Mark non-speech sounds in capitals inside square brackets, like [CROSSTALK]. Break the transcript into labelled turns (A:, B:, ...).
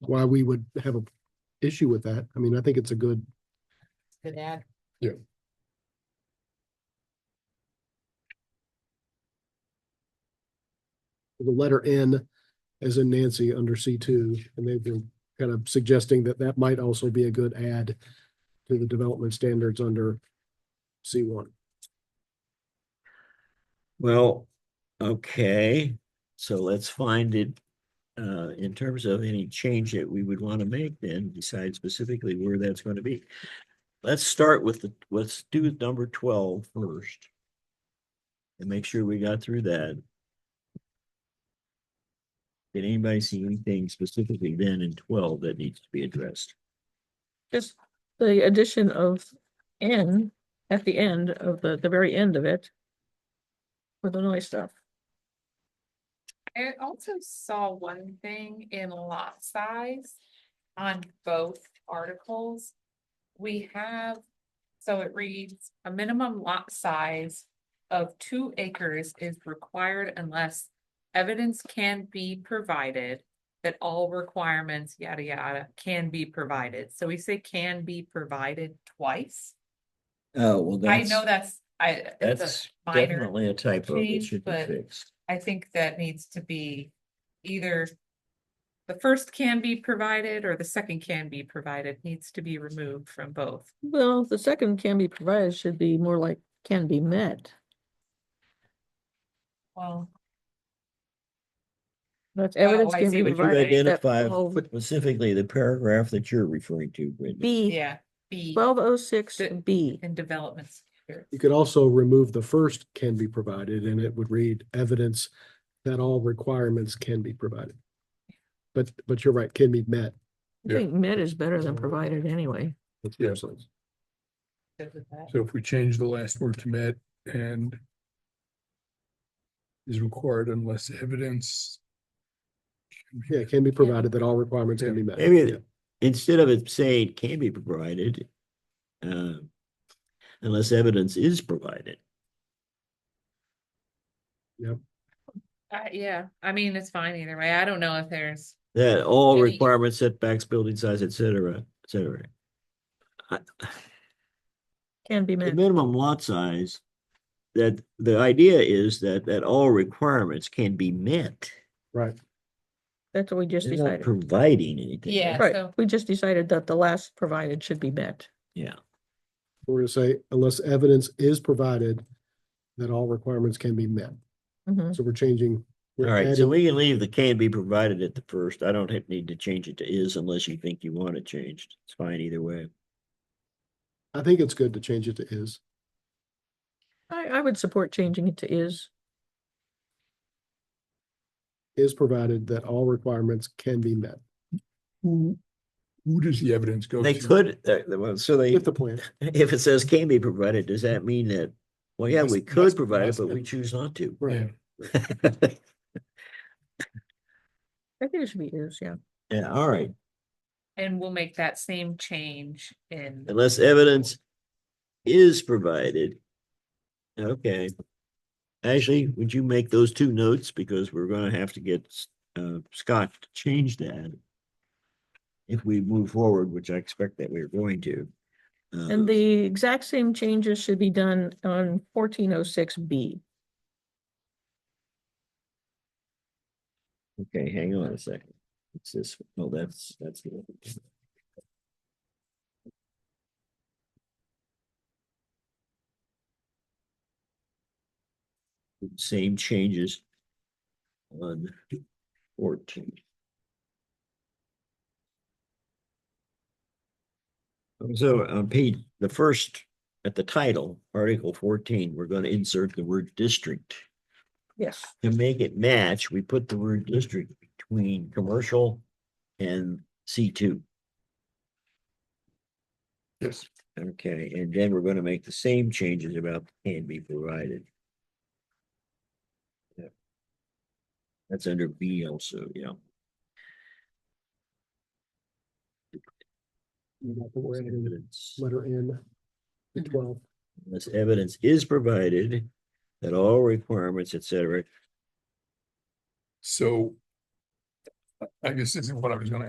A: why we would have a issue with that. I mean, I think it's a good,
B: Good add.
A: the letter N as in Nancy under C two, and they've been kind of suggesting that that might also be a good add to the development standards under C one.
C: Well, okay, so let's find it. Uh, in terms of any change that we would want to make, then decide specifically where that's going to be. Let's start with the, let's do number 12 first, And make sure we got through that. Did anybody see anything specifically then in twelve that needs to be addressed?
D: Just the addition of N at the end of the, the very end of it. For the noise stuff.
B: I also saw one thing in lot size on both articles. We have, so it reads, a minimum lot size of two acres is required unless evidence can be provided that all requirements, yada, yada, can be provided. So we say can be provided twice.
C: Oh, well,
B: I
C: that's,
B: know that's, I, it's
C: that's
B: a minor.
C: definitely a typo that
B: change,
C: should be
B: but-
C: fixed.
B: I think that needs to be either. The first can be provided or the second can be provided needs to be removed from both.
D: Well, the second can be provided should be more like can be met.
B: Well,
D: That's
B: Oh,
D: evidence
B: I
D: can
B: see
D: be
B: what
C: Would you
B: Right, that
D: provided.
C: identify
D: that all
C: specifically the paragraph that you're referring to, Brittany?
D: B,
B: yeah, B
D: twelve oh six
B: The-
D: B.
B: in developments. here.
A: You could also remove the first can be provided, and it would read evidence that all requirements can be provided. But, but you're right, can be met.
D: I think met is better than provided anyway.
E: Yeah.
A: Absolutely.
B: Good with that.
E: So if we change the last word to met and is required unless evidence. can be-
A: Yeah, can be provided that all requirements can be met.
C: Maybe-
A: Yeah.
C: Instead of it saying can be provided, uh, unless evidence is provided.
B: Uh, yeah, I mean, it's fine either way. I don't know if there's,
C: That all
B: Any-
C: requirements, setbacks, building size, et cetera, et cetera. I-
D: Can be
C: The
D: met.
C: minimum lot size, that the idea is that, that all requirements can be met.
A: Right.
D: That's what we just
C: They're not
D: decided.
C: providing anything.
B: Yeah.
D: Right,
B: so-
D: we just decided that the last provided should be met.
C: Yeah,
A: We're gonna say unless evidence is provided that all requirements can be met.
D: Mhm.
A: So we're changing.
C: all
A: we're
C: right, so
A: adding-
C: we can leave the can be provided at the first. I don't have- need to change it to is unless you think you want it changed. It's fine either way.
A: I think it's good to change it to is.
D: I, I would support changing it to is.
A: Is provided that all requirements can be met
E: Who, who does the evidence go to?
C: They could, uh, well, so they.
A: with the plan.
C: If it says can be provided, does that mean that, well, yeah,
E: Must-
C: we could
E: must-
C: provide it,
E: must
C: but we
E: have-
C: choose not to?
E: Yeah,
A: Right.
D: I think it should be is, yeah.
C: [LAUGHS] Yeah, all right,
B: and we'll make that same change in,
C: unless evidence is provided. Okay. Ashley, would you make those two notes because we're gonna have to get uh Scott to change that. If we move forward, which I expect that we're going to. Uh,
D: And the exact same changes should be done on fourteen oh six B.
C: Okay, hang on a second. It's this, oh, that's, that's. the one. Same changes on fourteen. So on page, the first, at the title, article fourteen, we're gonna insert the word district
D: Yes.
C: to make it match, we put the word district between commercial and C two.
E: yes,
C: Okay, and then we're gonna make the same changes about can be provided. Yep. That's under B also, yeah.
A: You got the word in,
C: Evidence.
A: Letter N, the
D: Mhm.
A: twelve.
C: Unless evidence is provided that all requirements, et cetera,
E: so. I- I guess this is what I was gonna